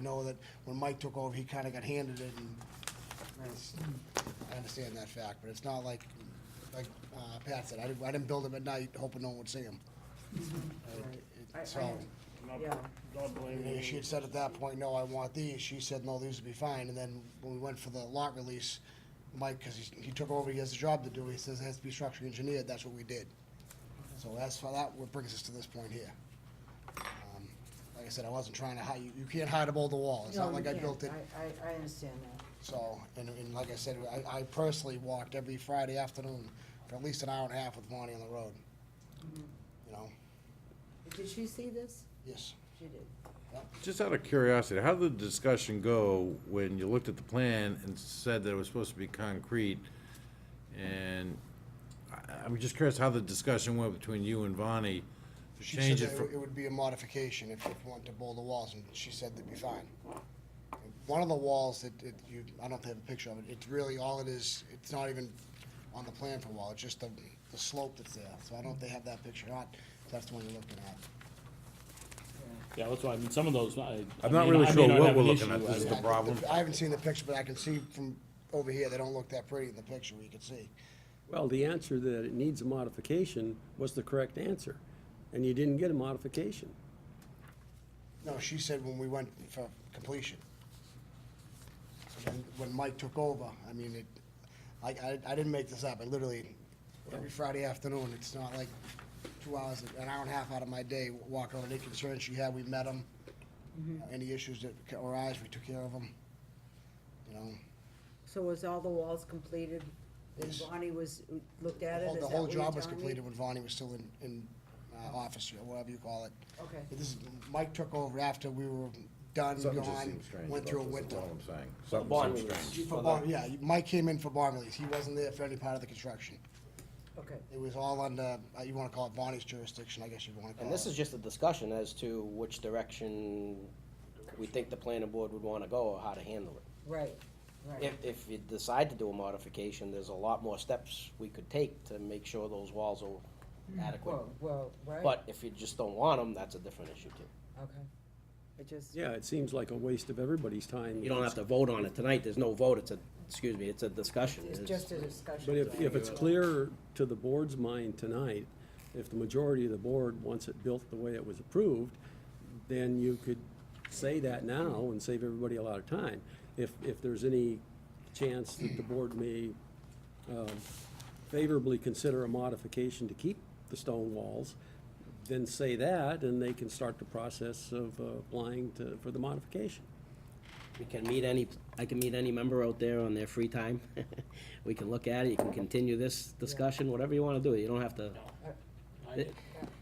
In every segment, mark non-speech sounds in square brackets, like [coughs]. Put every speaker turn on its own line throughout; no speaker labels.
know that when Mike took over, he kinda got handed it and it's- I understand that fact, but it's not like, like, uh, Pat said, I didn't, I didn't build them at night hoping no one would see
[laughs]
them.
I- I-
So,
Not,
Yeah.
not
you
blaming
know, she
you.
had said at that point, no, I want these, she said, no, these would be fine, and then when we went for the lot release, Mike, cause he, he took over, he has a job to do, he says it has to be structurally engineered, that's what we did. So that's why that, what brings us to this point here. Um, Like I said, I wasn't trying to hide, you, you can't hide them all the wall, it's
No,
not
you
like I
can't.
built it.
I, I, I understand that.
So, and, and like I said, I, I personally walked every Friday afternoon for at least an hour and a half with Monty on the road.
Mm-hmm.
You know,
Did she see this?
yes,
She did.
Just out of curiosity, how did the discussion go when you looked at the plan and said that it was supposed to be concrete? And I- I'm just curious how the discussion went between you and Vonnie to
she
change
said
it
that
from,
it would be a modification if you want to bowl the walls, and she said they'd be fine. One of the walls that, it, you, I don't have a picture of it, it's really, all it is, it's not even on the plan for a wall, it's just the, the slope that's there, so I don't know if they have that picture or not, if that's the one you're looking at.
Yeah, that's why, I mean, some of those, I. I
I'm not
may
really
I may
sure
not
what
have
we're
an
looking
issue.
at. This is
I-
the
I-
problem.
I haven't seen the picture, but I can see from over here, they don't look that pretty in the picture, we can see.
Well, the answer that it needs a modification was the correct answer, and you didn't get a modification.
No, she said when we went for completion. So When, when Mike took over, I mean, it, I, I, I didn't make this up, I literally, every Friday afternoon, it's not like two hours, an hour and a half out of my day, walk over, any concerns she had, we met them.
Mm-hmm.
Any issues that ca- arise, we took care of them, you know.
So was all the walls completed? And
Yes.
Bonnie was, looked at
The
it?
whole-
Is
The
that
whole
what you're
job was
telling me?
completed when Vonnie was still in, in, uh, office, or whatever you call it.
Okay.
But This is, Mike took over after we were done,
something just
gone,
seems strange.
went through a
about this,
winter.
is all I'm saying. Something
bond
seems
release.
strange.
For bar, yeah, Mike came in for barn release, he wasn't there for any part of the construction.
Okay.
It was all under, uh, you wanna call it Bonnie's jurisdiction, I guess you'd wanna call it.
And this is just a discussion as to which direction we think the planning board would wanna go or how to handle it.
Right, right.
If, if you decide to do a modification, there's a lot more steps we could take to make sure those walls are adequate.
Well, well, right?
But if you just don't want them, that's a different issue too.
Okay. It just,
Yeah, it seems like a waste of everybody's time.
You don't have to vote on it tonight, there's no vote, it's a, excuse me, it's a discussion.
it's just a discussion.
But if, if it's clear to the board's mind tonight, if the majority of the board wants it built the way it was approved, then you could say that now and save everybody a lot of time. If, if there's any chance that the board may um, favorably consider a modification to keep the stone walls, then say that, and they can start the process of uh, applying to, for the modification.
We can meet any, I can meet any member out there on their free time. [laughs] We can look at it, you can continue this discussion, whatever you wanna do, you don't have to. It-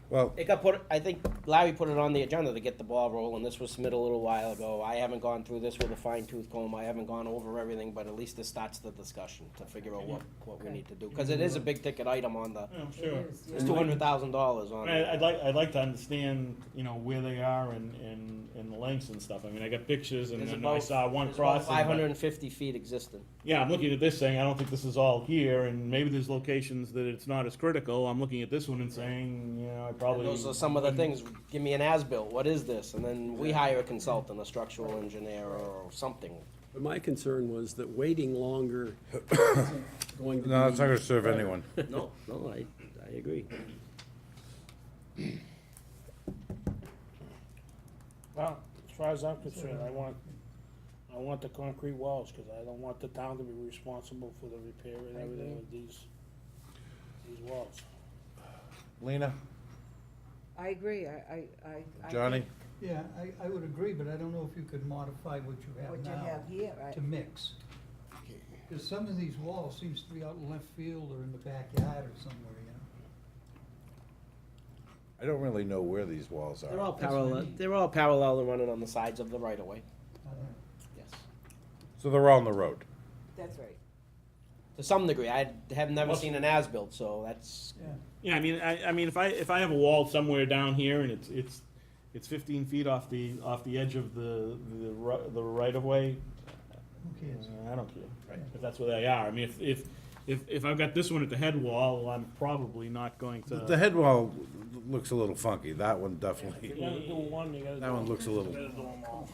Well,
It got put, I think Larry put it on the agenda to get the ball rolling, this was submitted a little while ago, I haven't gone through this with a fine tooth comb, I haven't gone over everything, but at least this starts the discussion to figure out what, what we need to do, cause it is a big ticket item on the,
Yeah,
It
sure.
is,
it's
yeah.
two hundred thousand dollars on.
Mm-hmm. I mean, I'd like, I'd like to understand, you know, where they are and, and, and the lengths and stuff. I mean, I got pictures and
There's
then I
about-
saw one
there's about
crossing. but-
Five hundred and fifty feet existing.
Yeah, I'm looking at this saying, I don't think this is all here, and maybe there's locations that it's not as critical. I'm looking at this one and saying, you know, I probably. mm-hmm.
Those are some of the things, give me an as-built, what is this? And then we hire a consultant, a structural engineer or something.
But my concern was that
[coughs]
waiting longer isn't going to be.
no, it's not gonna serve anyone.
No, no, I, I agree.
Well, as far as I'm concerned, I want, I want the concrete walls, cause I don't want the town to be responsible for the repair and
I
everything
agree.
of these, these walls.
Lena,
I agree, I, I, I- I.
Johnny?
think
Yeah, I, I would agree, but I don't know if you could modify what you
What
have
you
now
have here, right?
to mix. Because some of these walls seems to be out in left field or in the backyard or somewhere, you know?
I don't really know where these walls
They're all
are.
parallel, they're all parallel and running on the sides of the right-of-way,
I don't know.
yes.
So they're all on the road.
That's right.
To some degree, I have never
Most-
seen an as-built, so that's,
Yeah.
Yeah, I mean, I, I mean, if I, if I have a wall somewhere down here and it's, it's, it's fifteen feet off the, off the edge of the, the ri- the right of way,
Who cares?
I don't care. If that's where they are. I mean, if, if, if, if I've got this one at the head wall, I'm probably not going to.
The head wall looks a little funky. That one definitely,
You gotta do one, you gotta do.
that one looks a
You
little,
gotta do them all.